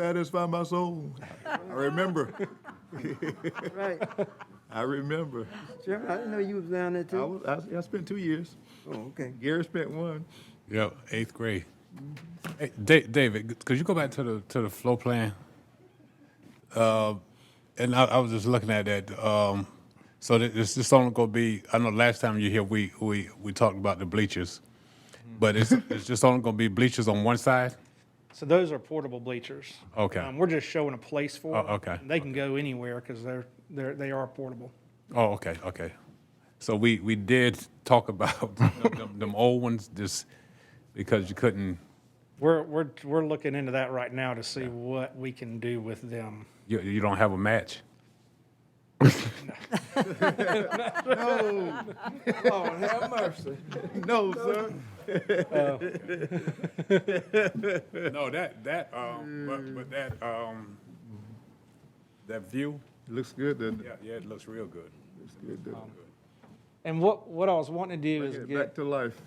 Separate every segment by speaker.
Speaker 1: satisfy my soul. I remember,
Speaker 2: Right.
Speaker 1: I remember.
Speaker 2: Chairman, I didn't know you was down there
Speaker 1: I
Speaker 2: too.
Speaker 1: was, I, I spent two years.
Speaker 2: Oh, okay.
Speaker 1: Gary spent one.
Speaker 3: Yep, eighth grade. Hey, Da- David, could you go back to the to the flow plan? Uh, and I, I was just looking at that. Um, so that this this only gonna be. I know last time you here we we we talked about the bleachers, but it's it's just only gonna be bleachers on one side.
Speaker 4: So those are portable bleachers.
Speaker 3: Okay.
Speaker 4: Um, we're just showing a place for
Speaker 3: Oh,
Speaker 4: them.
Speaker 3: okay,
Speaker 4: They can go anywhere because they're, they're, they are portable.
Speaker 3: Oh, okay, okay. So we we did talk about them, them, them old ones just because you couldn't.
Speaker 4: We're, we're, we're looking into that right now to see what we can do with them.
Speaker 3: You, you don't have a match.
Speaker 1: No,
Speaker 2: Lord, have mercy.
Speaker 1: no, sir.
Speaker 3: No, that that um, but, but that um, that view,
Speaker 1: Looks good, doesn't it?
Speaker 3: yeah, yeah, it looks real good.
Speaker 1: Looks good, doesn't it?
Speaker 4: And what, what I was wanting to do is
Speaker 1: Get
Speaker 4: get,
Speaker 1: Back to life,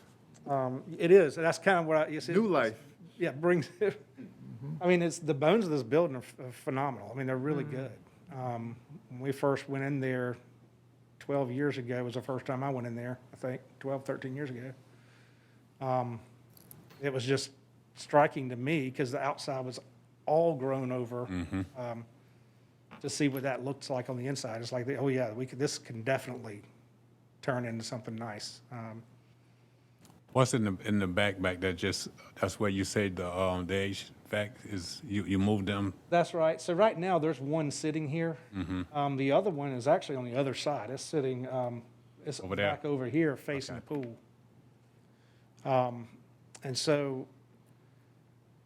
Speaker 4: um, it is, that's kind of what I, it's.
Speaker 1: new life.
Speaker 4: Yeah, brings it. I mean, it's, the bones of this building are ph- are phenomenal. I mean, they're really good. Um, when we first went in there twelve years ago was the first time I went in there, I think, 12, 13 years ago. Um, it was just striking to me because the outside was all grown over. Um, to see what that looks like on the inside, it's like, oh yeah, we could, this can definitely turn into something nice. Um,
Speaker 3: What's in the in the back back that just that's where you say the um the age fact is you you move them.
Speaker 4: That's right. So right now, there's one sitting here.
Speaker 3: Mm-hmm.
Speaker 4: Um, the other one is actually on the other side. It's sitting, um, it's
Speaker 3: Over there.
Speaker 4: back over here facing the pool. Um, and so,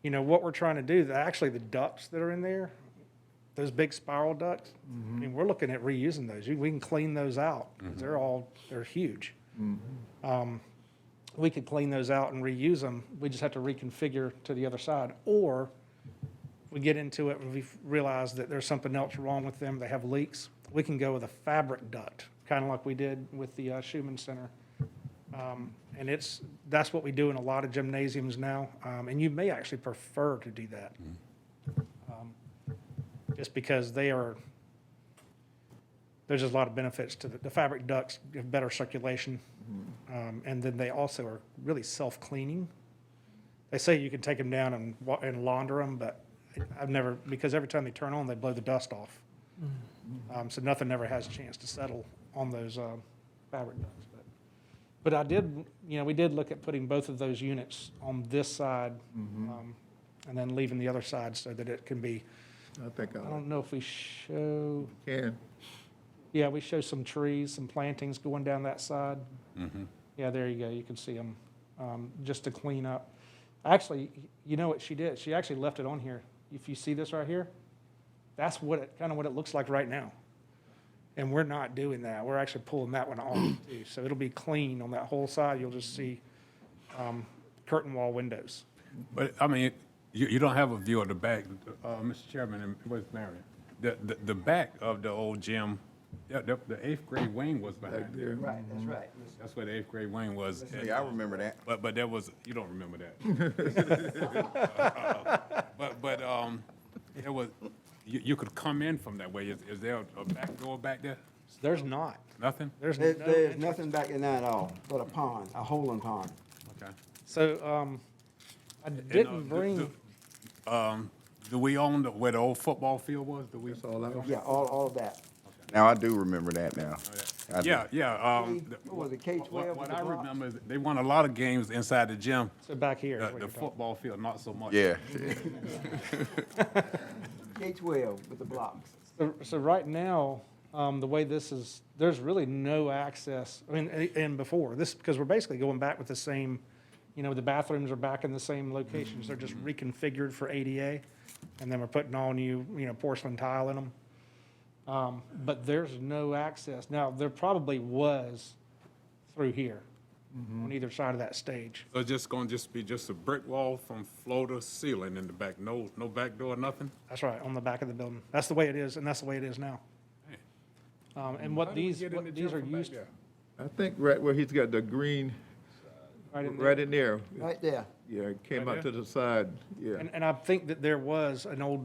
Speaker 4: you know, what we're trying to do, the, actually the ducts that are in there, those big spiral ducts, I
Speaker 3: Mm-hmm.
Speaker 4: mean, we're looking at reusing those. You- We can clean those out. 'cause They're all, they're huge. Um, we could clean those out and reuse them. We just have to reconfigure to the other side. Or we get into it and we realize that there's something else wrong with them, they have leaks, we can go with a fabric duct, kind of like we did with the uh, Schumann Center. Um, And it's, that's what we do in a lot of gymnasiums now, um, and you may actually prefer to do that. Um, Just because they are, there's just a lot of benefits to the, the fabric ducts give better circulation. um, And then they also are really self-cleaning. They say you can take them down and, wa- and launder them, but I've never, because every time they turn on, they blow the dust off. Um, so nothing ever has a chance to settle on those, um, fabric ducts. But- But I did, you know, we did look at putting both of those units on this side,
Speaker 1: Mm-hmm.
Speaker 4: um, and then leaving the other side so that it can be,
Speaker 1: I think
Speaker 4: I
Speaker 1: I
Speaker 4: don't know if we show,
Speaker 1: can.
Speaker 4: yeah, we show some trees, some plantings going down that side.
Speaker 3: Mm-hmm.
Speaker 4: Yeah, there you go. You can see them, um, just to clean up. Actually, you know what she did? She actually left it on here. If you see this right here, that's what it, kind of what it looks like right now. And we're not doing that. We're actually pulling that one off too. So it'll be clean on that whole side. You'll just see, um, curtain wall windows.
Speaker 3: But I mean, you, you don't have a view of the back, uh, Mr. Chairman and Vice Mayor. The, the the back of the old gym, yeah, the, the eighth grade wing was behind there.
Speaker 2: Right, that's right.
Speaker 3: That's where the eighth grade wing was.
Speaker 5: Yeah, I remember that.
Speaker 3: But but that was you don't remember that. but but um, there was you, you could come in from that way. Is, is there a back door back there?
Speaker 4: There's not.
Speaker 3: Nothing.
Speaker 4: There's no.
Speaker 2: There's, there's
Speaker 4: entrance.
Speaker 2: nothing back in there at all, but a pond, a hole in pond.
Speaker 3: Okay.
Speaker 4: So, um, I
Speaker 3: And, uh,
Speaker 4: didn't
Speaker 3: do-
Speaker 4: bring.
Speaker 3: do- Um, do we own the, where the old football field was? Do we?
Speaker 1: That's all I was.
Speaker 2: Yeah, all, all of that.
Speaker 5: Now I do remember that now. I do.
Speaker 3: Yeah, yeah. Um,
Speaker 2: What
Speaker 3: the-
Speaker 2: was it, K-12
Speaker 3: What, what
Speaker 2: with the
Speaker 3: I
Speaker 2: block?
Speaker 3: remember is they won a lot of games inside the gym.
Speaker 4: So back here.
Speaker 3: The,
Speaker 4: is what
Speaker 3: the
Speaker 4: you're talking
Speaker 3: football field, not so much.
Speaker 5: Yeah.
Speaker 2: K-12 with the blocks.
Speaker 4: So, so right now, um, the way this is, there's really no access, I mean, a- and before, this, because we're basically going back with the same, you know, the bathrooms are back in the same locations, they're
Speaker 3: Mm-hmm.
Speaker 4: just reconfigured for ADA, and then we're putting all new, you know, porcelain tile in them. Um, but there's no access. Now, there probably was through here,
Speaker 3: Mm-hmm.
Speaker 4: on either side of that stage.
Speaker 3: So it's just gonna just be just a brick wall from floor to ceiling in the back. No, no back door, nothing.
Speaker 4: That's right, on the back of the building. That's the way it is, and that's the way it is now. Um, and
Speaker 3: How
Speaker 4: what
Speaker 3: do we
Speaker 4: these,
Speaker 3: get in the
Speaker 4: what these
Speaker 3: gym
Speaker 4: are
Speaker 3: from back
Speaker 4: used,
Speaker 3: there?
Speaker 1: I think right where he's got the green,
Speaker 4: right in there.
Speaker 1: right in there.
Speaker 2: Right there.
Speaker 1: Yeah, it came
Speaker 3: Right
Speaker 1: out
Speaker 3: there?
Speaker 1: to the side, yeah.
Speaker 4: And, and I think that there was an old